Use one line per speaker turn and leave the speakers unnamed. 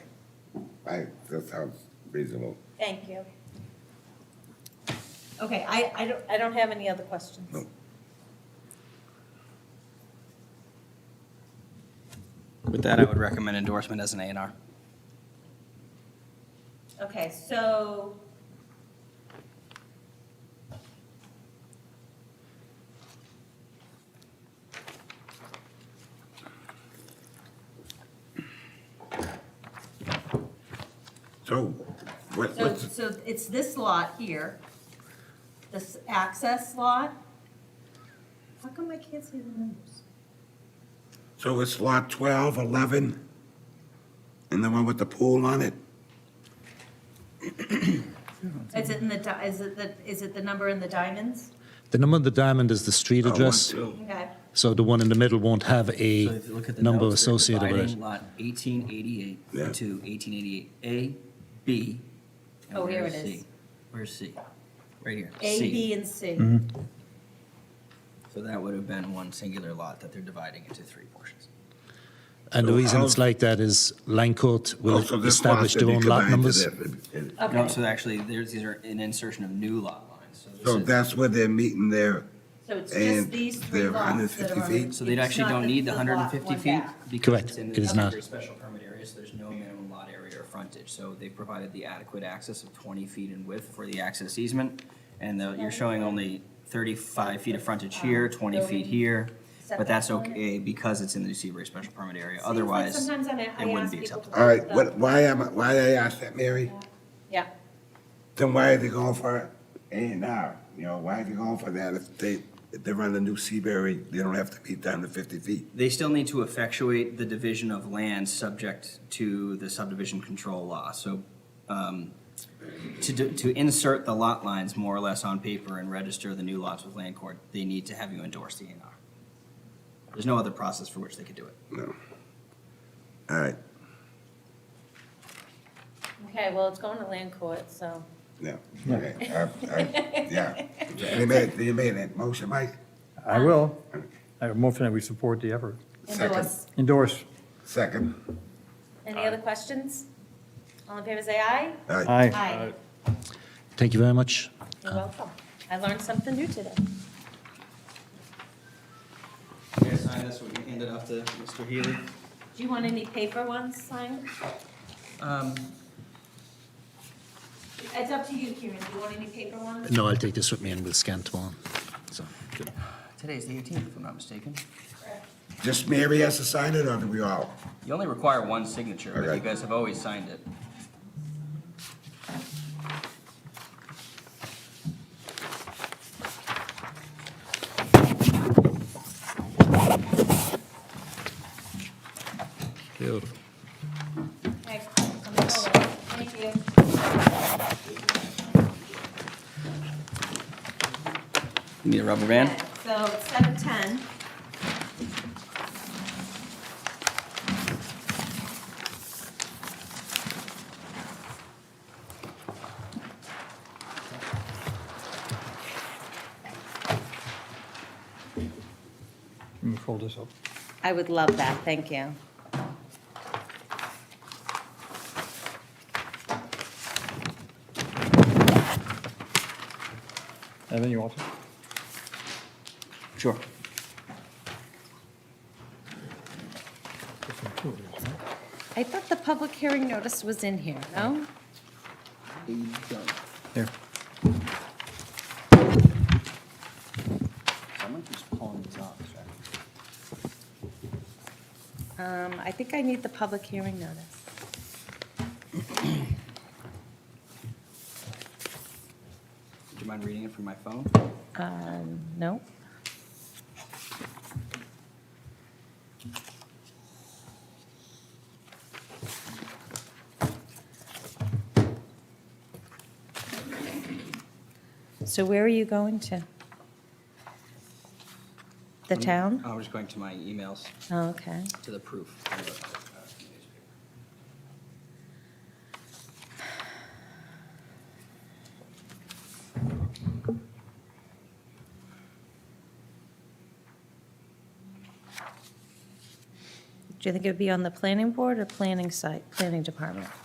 I, that sounds reasonable.
Thank you. Okay, I, I don't, I don't have any other questions.
No.
With that, I would recommend endorsement as an A and R.
Okay, so.
So, what,
So,
what's,
so it's this lot here, this access lot. How come I can't see the numbers?
so it's lot 12, 11, and the one with the pool on it?
Is it in the, di- is it the, is it the number in the diamonds?
The number of the diamond is the street
Oh, one,
address,
two.
Okay,
so the one in the middle won't have
So
a
if you look at the
number
notes, they're
associated with
dividing
it.
Lot eighteen eighty-eight
Yeah.
to eighteen eighty-eight A, B. and
Oh, here
where's
it is.
C? Where's C? Right here.
A,
C.
B, and C.
Mm-hmm. So that would have been one singular lot that they're dividing into three portions.
And the
So
reason
how-
it's like that is Langcourt will
Oh, so this
establish
lot should
their
be
own lot
combined
numbers.
to that.
No,
Okay,
so actually, there's, these are an insertion of new lot lines. this
So
is-
that's where they're meeting there.
so it's just
and
these three
they're
lots that
150
are.
feet?
So they actually don't need the hundred and fifty feet? because
Correct.
it's in the
It is not.
category Special permit area, so there's no minimum lot area or frontage, so they provided the adequate access of twenty feet in width for the access easement. And the- you're showing only thirty-five feet of frontage here,
Um,
twenty feet here, but that's okay because it's in the Seabury Special Permit area, otherwise,
Sometimes I,
it
I
wouldn't
ask
be
people.
acceptable.
All right, what, why am, I- why I asked that, Mary?
Yeah,
Then why are they going for A and R? You know, why are they going for that if they, if they run the new Seabury, they don't have to be down to 50 feet?
they still need to effectuate the division of land subject to the subdivision control law, so, um, to, do- to insert the lot lines more or less on paper and register the new lots with land court, they need to have you endorse the A and R. There's no other process for which they could do it.
No. All right,
okay, well, it's going to land court, so.
no. Okay, I- I- Yeah. You made, you made that motion, Mike?
I will. I have more than we support the effort.
Second.
Endorse.
Endorse.
Second.
Any other questions? All in favor, say aye.
All right.
Aye.
Thank you very much.
You're welcome. I learned something new today.
Okay, sign this, we can hand it off to Mr. Healy.
Do you want any paper ones signed?
Um,
It's up to you, Kieran. Do you want any paper ones?
No, I'll take this with me and we'll scan tomorrow. So,
today's the eighteenth, if I'm not mistaken.
Just Mary has to sign it, or do we all?
You only require one signature, but
Okay.
you guys have always signed it.
Beautiful.
Okay, I'm gonna go with it. Thank you.
Need a rubber band?
Okay, So it's seven ten.
Let me fold this up.
I would love that, thank you.
Evan, you want to?
Sure.
I thought the public hearing notice was in here, no?
Here.
Someone keeps pulling these off, sorry.
Um, I think I need the public hearing notice.
Do you mind reading it from my phone?
Um, no. So where are you going to? The
Um,
town?
I was going to my emails,
Oh, okay.
to the proof.
Do you think it would be on the planning board or planning site, planning department?